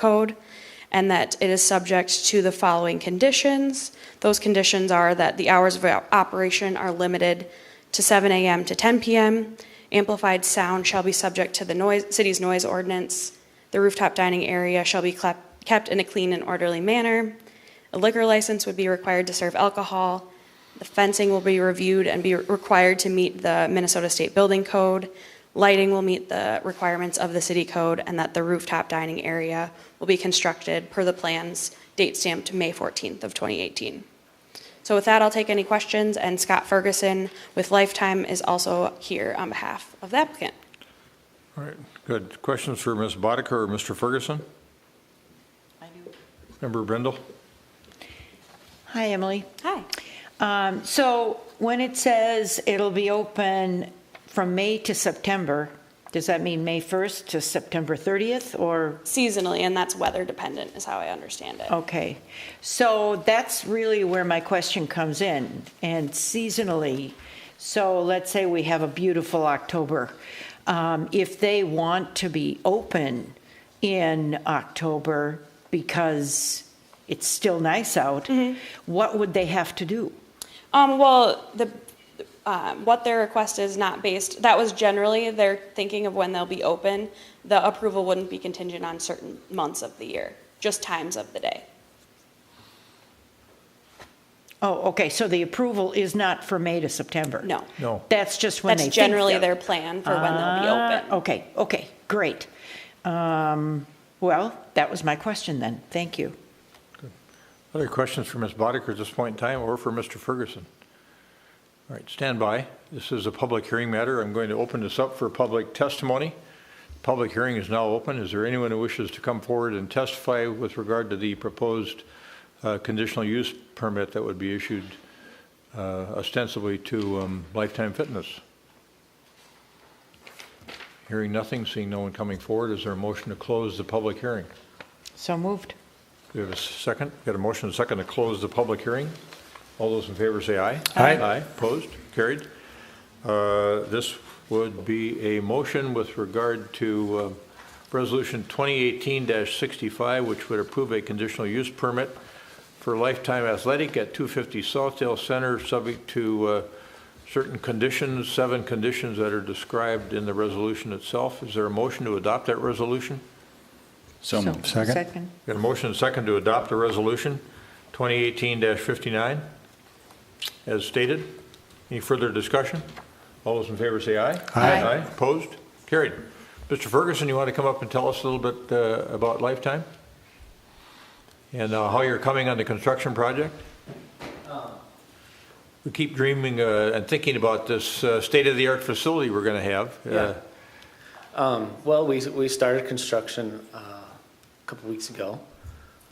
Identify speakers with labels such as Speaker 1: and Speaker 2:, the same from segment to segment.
Speaker 1: code and that it is subject to the following conditions. Those conditions are that the hours of op- operation are limited to 7 a.m. to 10 p.m. Amplified sound shall be subject to the noise, city's noise ordinance. The rooftop dining area shall be clep- kept in a clean and orderly manner. A liquor license would be required to serve alcohol. The fencing will be reviewed and be required to meet the Minnesota State Building Code. Lighting will meet the requirements of the city code, and that the rooftop dining area will be constructed per the plans date stamped May 14th of 2018. So with that, I'll take any questions, and Scott Ferguson with Lifetime is also here on behalf of the applicant.
Speaker 2: All right, good. Questions for Ms. Boddicker or Mr. Ferguson? Member Brindle?
Speaker 3: Hi, Emily.
Speaker 1: Hi.
Speaker 3: Um, So when it says it'll be open from May to September, does that mean May 1st to September 30th or,
Speaker 1: Seasonally, and that's weather dependent, is how I understand it.
Speaker 3: okay. So that's really where my question comes in and seasonally. So let's say we have a beautiful October. Um, If they want to be open in October because it's still nice out, what would they have to do?
Speaker 1: Um, well, the, um, what their request is not based, that was generally their thinking of when they'll be open. The approval wouldn't be contingent on certain months of the year, just times of the day.
Speaker 3: Oh, okay, so the approval is not for May to September?
Speaker 1: No.
Speaker 2: No.
Speaker 3: That's just when they
Speaker 1: That's
Speaker 3: think
Speaker 1: generally
Speaker 3: they'll-
Speaker 1: their plan for when they'll be
Speaker 3: Ah,
Speaker 1: open.
Speaker 3: Okay, okay, great. Um, Well, that was my question then, thank you.
Speaker 2: Other questions for Ms. Boddicker at this point in time or for Mr. Ferguson? All right, stand by. This is a public hearing matter. I'm going to open this up for public testimony. Public hearing is now open. Is there anyone who wishes to come forward and testify with regard to the proposed uh, conditional use permit that would be issued uh, ostensibly to um, Lifetime Fitness? Hearing nothing, seeing no one coming forward, is there a motion to close the public hearing?
Speaker 3: So moved.
Speaker 2: We have a second, got a motion and a second to close the public hearing. All those in favor say aye.
Speaker 3: Aye.
Speaker 2: Aye, opposed, carried. Uh, This would be a motion with regard to um, Resolution 2018-65, which would approve a conditional use permit for Lifetime Athletic at 250 Southdale Center, subject to uh, certain conditions, seven conditions that are described in the resolution itself. Is there a motion to adopt that resolution?
Speaker 4: So
Speaker 3: So,
Speaker 4: moved. Second?
Speaker 2: Got a motion and second to adopt the resolution 2018-59 as stated. Any further discussion? All those in favor say aye.
Speaker 3: Aye.
Speaker 2: Opposed? Carried. Mr. Ferguson, you want to come up and tell us a little bit uh, about Lifetime? And uh, how you're coming on the construction project?
Speaker 5: Um.
Speaker 2: We keep dreaming uh, and thinking about this uh, state-of-the-art facility we're going to have. Uh,
Speaker 5: Yeah. Um, Well, we, we started construction uh, a couple weeks ago.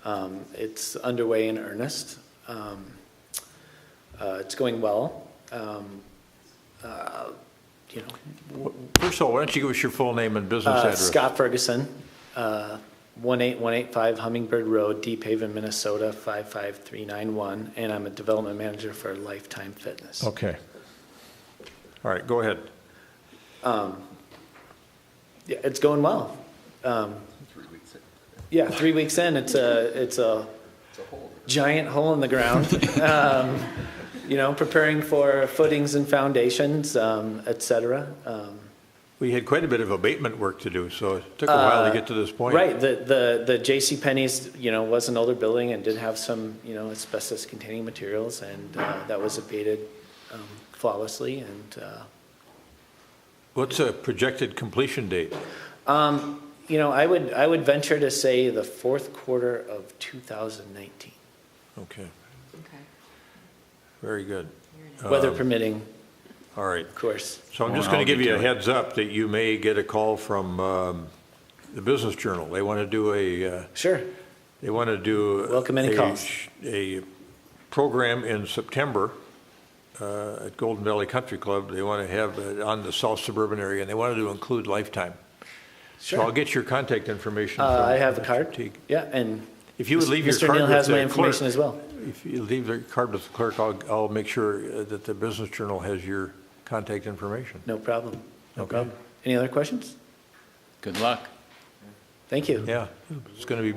Speaker 5: Um, It's underway in earnest. Um, uh, It's going well. Um, uh, You know,
Speaker 2: First of all, why don't you give us your full name and business
Speaker 5: uh,
Speaker 2: address?
Speaker 5: Scott Ferguson, uh, 18185 Hummingbird Road, Deep Haven, Minnesota, 55391, and I'm a development manager for Lifetime Fitness.
Speaker 2: Okay. All right, go ahead.
Speaker 5: Yeah, it's going well. Um, yeah, three weeks in, it's a it's a giant hole in the ground. um, you know, preparing for footings and foundations, um, et cetera. Um,
Speaker 2: We had quite a bit of abatement work to do, so it took a while to get to this point.
Speaker 5: Uh, Right. The the the J.C. Penney's, you know, was an older building and did have some, you know, asbestos-containing materials, and uh, that was abated um, flawlessly. And uh,
Speaker 2: What's a projected completion date?
Speaker 5: um, you know, I would I would venture to say the fourth quarter of 2019.
Speaker 2: Okay, very good.
Speaker 5: Weather permitting,
Speaker 2: All right.
Speaker 5: of course.
Speaker 2: So I'm just
Speaker 4: Well,
Speaker 2: going to
Speaker 4: I'll
Speaker 2: give
Speaker 4: be
Speaker 2: you a
Speaker 4: doing-
Speaker 2: heads up that you may get a call from um, the Business Journal. They want to do a, uh,
Speaker 5: Sure.
Speaker 2: they want to do.
Speaker 5: Welcome any
Speaker 2: a-
Speaker 5: calls.
Speaker 2: A program in September uh, at Golden Valley Country Club. They want to have it on the South Suburban area, and they wanted to include Lifetime. So I'll
Speaker 5: Sure.
Speaker 2: get your contact information.
Speaker 5: Uh,
Speaker 2: from
Speaker 5: I have a
Speaker 2: Mr.
Speaker 5: card.
Speaker 2: Teague.
Speaker 5: Yeah, and.
Speaker 2: If you would leave your
Speaker 5: Mr.
Speaker 2: card
Speaker 5: Neal
Speaker 2: with
Speaker 5: has my
Speaker 2: the clerk-
Speaker 5: information as well.
Speaker 2: If you leave the card with the clerk, I'll, I'll make sure uh, that the Business Journal has your contact information.
Speaker 5: No problem. No
Speaker 2: Okay.
Speaker 5: problem. Any other questions?
Speaker 4: Good luck.
Speaker 5: Thank you.
Speaker 2: Yeah, it's going to be